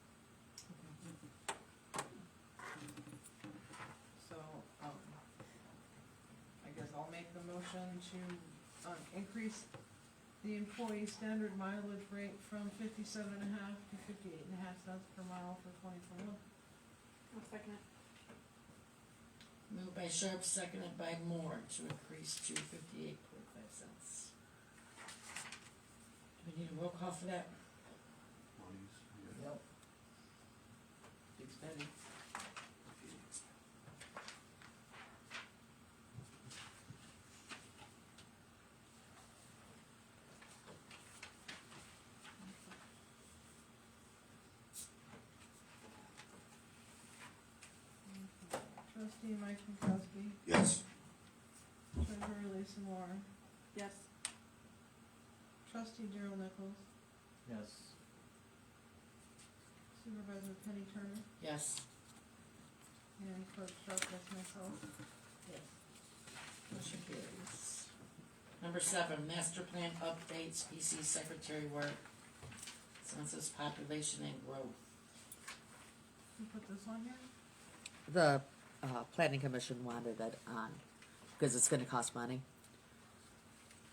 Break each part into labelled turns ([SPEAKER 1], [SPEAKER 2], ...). [SPEAKER 1] um, motion to, uh, increase the employee standard mileage rate from fifty-seven and a half to fifty-eight and a half cents per mile for twenty twenty-one.
[SPEAKER 2] I'll second it.
[SPEAKER 3] Moved by Sharp, seconded by Moore to increase to fifty-eight point five cents. Do we need a roll call for that?
[SPEAKER 4] monies, yeah.
[SPEAKER 3] Nope.
[SPEAKER 1] Big spending. Trustee Mike Pankowski,
[SPEAKER 5] yes,
[SPEAKER 1] treasurer Lisa Moore,
[SPEAKER 2] Yes.
[SPEAKER 1] trustee Daryl Nichols,
[SPEAKER 6] Yes.
[SPEAKER 1] supervisor Penny Turner,
[SPEAKER 3] Yes.
[SPEAKER 1] and clerk Sharp, that's myself.
[SPEAKER 3] Yes. Motion carries. Number seven, master plan updates, PC secretary work, census population and growth.
[SPEAKER 1] You put this on here?
[SPEAKER 7] The uh, planning commission wanted it on, because it's gonna cost money.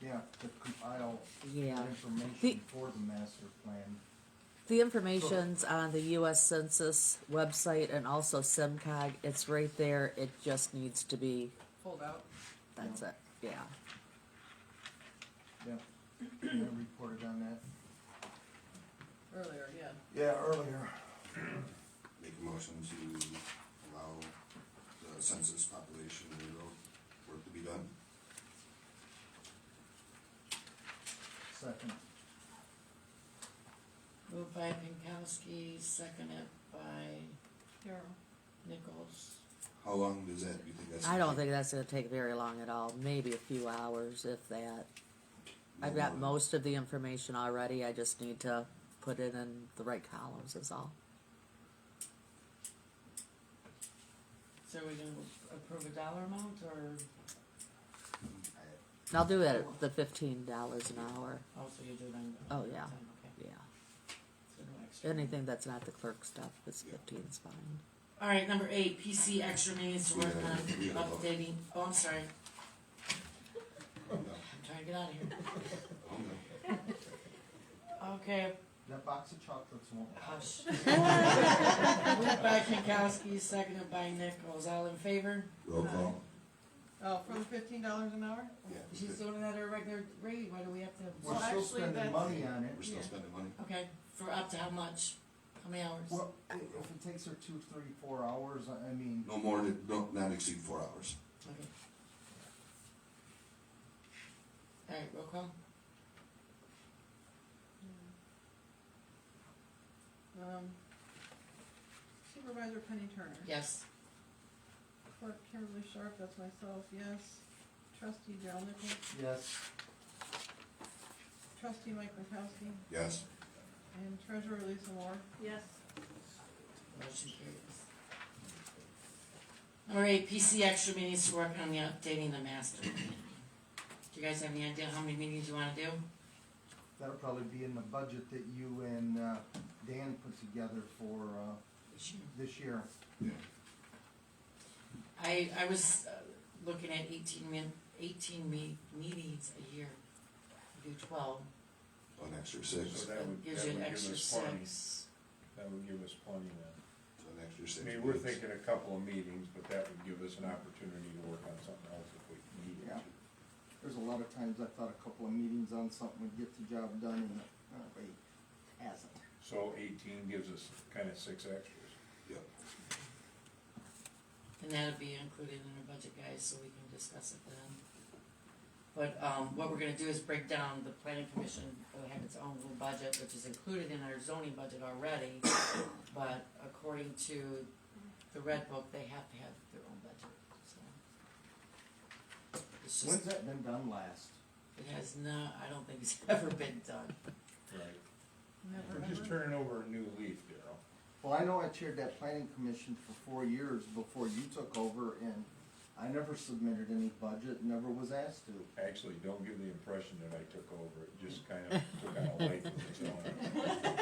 [SPEAKER 6] Yeah, to compile
[SPEAKER 7] Yeah. The-
[SPEAKER 6] information for the master plan.
[SPEAKER 7] The information's on the US Census website and also SimCog, it's right there, it just needs to be,
[SPEAKER 1] Fold out.
[SPEAKER 7] that's it, yeah.
[SPEAKER 6] Yeah, I reported on that.
[SPEAKER 1] Earlier, yeah.
[SPEAKER 6] Yeah, earlier.
[SPEAKER 5] make a motion to allow the census population and growth work to be done.
[SPEAKER 6] Second.
[SPEAKER 3] Moved by Pinkowski, seconded by
[SPEAKER 1] Daryl.
[SPEAKER 3] Nichols.
[SPEAKER 5] How long does that, you think that's?
[SPEAKER 7] I don't think that's gonna take very long at all, maybe a few hours, if that. I've got
[SPEAKER 5] No more
[SPEAKER 7] most of the information already, I just need to put it in the right columns is all.
[SPEAKER 3] So are we gonna approve a dollar amount or,
[SPEAKER 7] And I'll do it at the fifteen dollars an hour,
[SPEAKER 3] oh, so you do it on?
[SPEAKER 7] Oh, yeah.
[SPEAKER 3] Okay,
[SPEAKER 7] yeah.
[SPEAKER 3] so no extra.
[SPEAKER 7] Anything that's not the clerk stuff is fifteen's fine.
[SPEAKER 3] All right, number eight, PC extra meetings to work
[SPEAKER 5] Yeah,
[SPEAKER 3] on
[SPEAKER 5] we have a-
[SPEAKER 3] updating, oh, I'm sorry,
[SPEAKER 5] than- no,
[SPEAKER 3] I'm trying to get out of here.
[SPEAKER 5] oh, no.
[SPEAKER 3] Okay,
[SPEAKER 6] That box of chocolates won't.
[SPEAKER 3] hush. Moved by Pinkowski, seconded by Nichols, all in favor?
[SPEAKER 5] Roll call,
[SPEAKER 1] Oh, for the fifteen dollars an hour?
[SPEAKER 5] yeah, we're
[SPEAKER 3] She's doing it at her regular rate, why do we have to?
[SPEAKER 6] We're still
[SPEAKER 1] actually,
[SPEAKER 6] spending
[SPEAKER 1] that's-
[SPEAKER 6] money on it.
[SPEAKER 5] still
[SPEAKER 1] Yeah.
[SPEAKER 5] spending money.
[SPEAKER 3] Okay, for up to how much? How many hours?
[SPEAKER 6] Well, i- if it takes her two, three, four hours, I I mean,
[SPEAKER 5] No more than, don't, not exceed four hours.
[SPEAKER 3] Okay. All right, roll call?
[SPEAKER 1] Um, Supervisor Penny Turner.
[SPEAKER 3] Yes.
[SPEAKER 1] Clerk Kimberly Sharp, that's myself, yes. Trustee Daryl Nichols,
[SPEAKER 6] yes,
[SPEAKER 1] trustee Mike Pankowski,
[SPEAKER 5] Yes,
[SPEAKER 1] and treasurer Lisa Moore.
[SPEAKER 2] Yes.
[SPEAKER 3] Motion carries. All right, PC extra meetings to work on the updating the master plan. Do you guys have any idea how many meetings you wanna do?
[SPEAKER 6] that'll probably be in the budget that you and uh, Dan put together for uh,
[SPEAKER 3] This year?
[SPEAKER 6] this year.
[SPEAKER 5] yeah,
[SPEAKER 3] I, I was uh, looking at eighteen min, eighteen me- meetings a year. You Do twelve,
[SPEAKER 5] an extra six,
[SPEAKER 8] So
[SPEAKER 5] so
[SPEAKER 8] that would, that would
[SPEAKER 3] gives you
[SPEAKER 8] give
[SPEAKER 3] an extra
[SPEAKER 8] us plenty,
[SPEAKER 3] six.
[SPEAKER 8] that would give us plenty then.
[SPEAKER 5] an extra six.
[SPEAKER 8] I mean, we're
[SPEAKER 5] weeks.
[SPEAKER 8] thinking a couple of meetings, but that would give us an opportunity to work on something else if we needed
[SPEAKER 6] Yeah.
[SPEAKER 8] to.
[SPEAKER 6] There's a lot of times I thought a couple of meetings on something would get the job done and, uh, wait, hasn't.
[SPEAKER 8] So eighteen gives us kinda six extras.
[SPEAKER 5] Yep,
[SPEAKER 3] And that'd be included in our budget, guys, so we can discuss it then. But, um, what we're gonna do is break down the planning commission, will have its own little budget, which is included in our zoning budget already. But according to the red book, they have to have their own budget, so. It's just,
[SPEAKER 6] When's that been done last?
[SPEAKER 3] it has not, I don't think it's ever been done.
[SPEAKER 8] Right.
[SPEAKER 1] Never
[SPEAKER 8] We're just
[SPEAKER 1] ever.
[SPEAKER 8] turning over a new leaf, Darryl.
[SPEAKER 6] Well, I know I chaired that planning commission for four years before you took over and I never submitted any budget, never was asked to.
[SPEAKER 8] Actually, don't give the impression that I took over, it just kinda took on a life of its own.